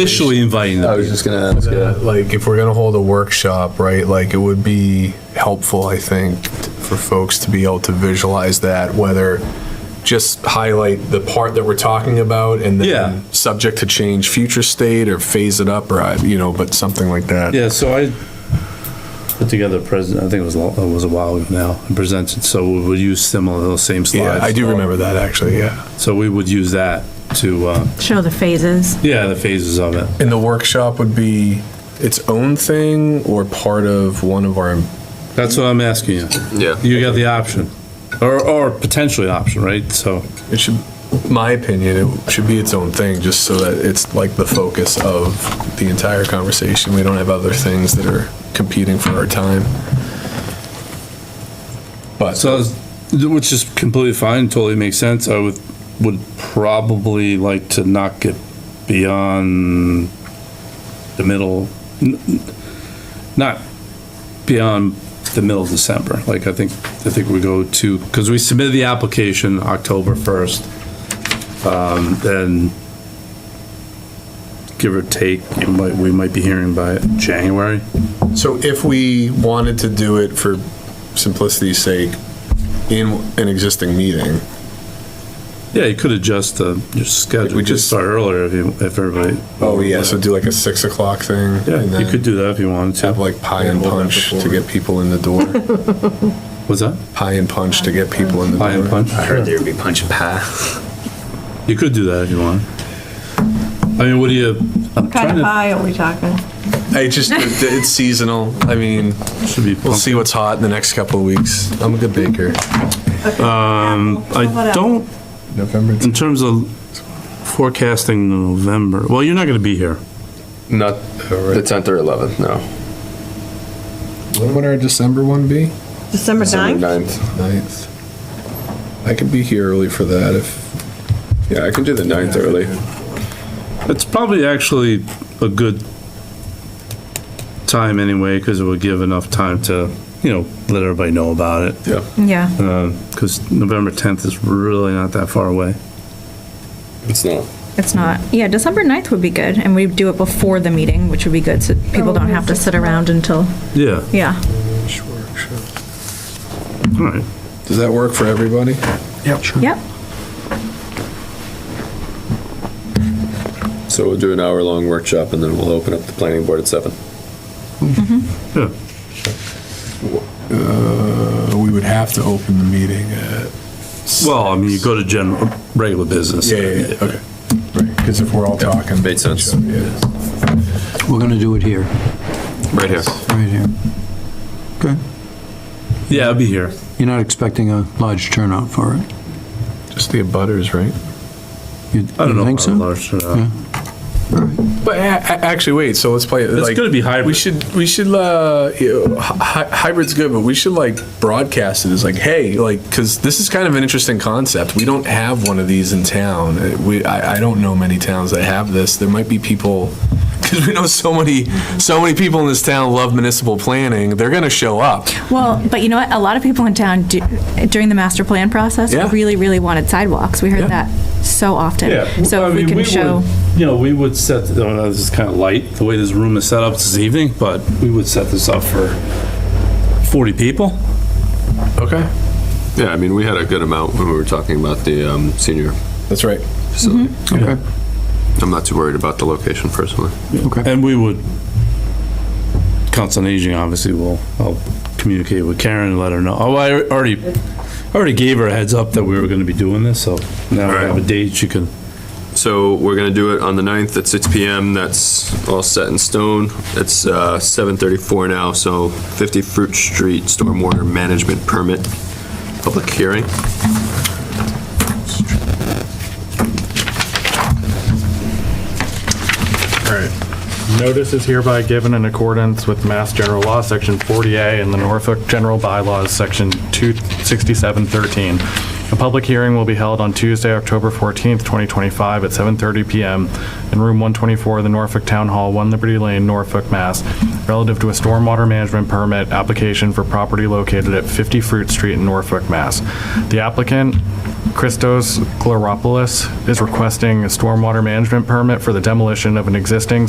officially inviting I them. was just gonna ask. that, uh, like if we're gonna hold a workshop, right? Like it would be helpful, I think, t- for folks to be able to visualize that, whether just highlight the part that we're talking about and then Yeah. subject to change future state or phase it up or I- you know, but something like that. Yeah, so I put together a present, I think it was, a- it was a while ago now, and presented, so we would use similar, those same Yeah, slides. I do remember that actually. Yeah. So we would use that to, uh, Show the phases. yeah, the phases of it. And the workshop would be its own thing or part of one of our. That's what I'm asking you. Yeah. You got the option, or, or potentially an option, right? So, It should, my opinion, it should be its own thing, just so that it's like the focus of the entire conversation. We don't have other things that are competing for our time. But so, it's- which is completely fine, totally makes sense. I would, would probably like to not get beyond the middle, n- n- not beyond the middle of December. Like, I think, I think we go to, because we submitted the application October 1st. Um, then give or take, you might, we might be hearing by January. So if we wanted to do it for simplicity's sake, in an existing meeting, Yeah, you could adjust the, your schedule. we We just- just start earlier if you, if everybody. oh yeah, so do like a six o'clock thing. Yeah, you and then could do that if you wanted Have to. like pie and Yeah, we'll have punch to to get people in the door. What's that? Pie and punch to get people in the door. Pie and punch? I heard there'd be punch and pass. You could do that if you want. I mean, what do you, I'm What kind trying of to, pie are we talking? I just, it's seasonal. I mean, should be, We'll see what's hot in the next couple of weeks. I'm a good baker. um, I don't, November. in terms of forecasting November, well, you're not gonna be here. Not the 10th or 11th, no. When would our December one be? December December 9th? 9th. Ninth. I could be here early for that if. Yeah, I can do the 9th early. It's probably actually a good time anyway, because it would give enough time to, you know, let everybody know about it. Yeah. Yeah. Because November 10th is really not that far away. It's not. It's not, yeah, December 9th would be good, and we do it before the meeting, which would be good, so Oh, people don't have to sit around until, Yeah, yeah. all right. Does that work for everybody? Yep. So we'll do an hour long workshop and then we'll open up the planning board at 7. Yeah. Uh, we would have to open the meeting at. Well, I mean, you go to general, regular business. Yeah, yeah, yeah, okay. Right, because if we're all talking. Made sense. Yeah. We're going to do it here, Right here. right here. Okay. Yeah, I'll be here. You're not expecting a large turnout for it? Just the abutters, right? You I don't you know. think so? about uh, Lars or not. Yeah. But a- a- actually, wait, so let's play it. It's like- gonna be We hybrid. should, we should, uh, you know, hy- hy- hybrid's good, but we should like broadcast it as like, hey, like, because this is kind of an interesting concept. We don't have one of these in town. Uh, We, I, I don't know many towns that have this. There might be people, because we know so many, so many people in this town love municipal planning. They're gonna show up. Well, but you know what, a lot of people in town do- during the master plan process Yeah. really, really wanted sidewalks, we Yeah. heard that so often. So I if we mean, can show, would- You know, we would set, oh, no, this is kind of light, the way this room is set up this evening, but we would set this up for 40 people. Okay, Yeah, I mean, we had a good amount when we were talking about the um, senior that's right. facility. Okay, I'm not too worried about the location personally. okay. And we would, Council on Aging, obviously, will, I'll communicate with Karen and let her know. Oh, I already, I already gave her a heads up that we were going to be doing this, so now we have a date, she can, So we're gonna do it on the 9th at 6 PM. That's all set in stone. It's uh, 7:34 now, so 50 Fruit Street Stormwater Management Permit, public hearing. All right. Notice is hereby given in accordance with Mass General Law, Section 40A, and the Norfolk General Bylaws, Section 26713. A public hearing will be held on Tuesday, October 14th, 2025, at 7:30 PM in Room 124 of the Norfolk Town Hall, 1 Liberty Lane, Norfolk, Mass, relative to a stormwater management permit application for property located at 50 Fruit Street in Norfolk, Mass. The applicant Christos Chloropoulos is requesting a stormwater management permit for the demolition of an existing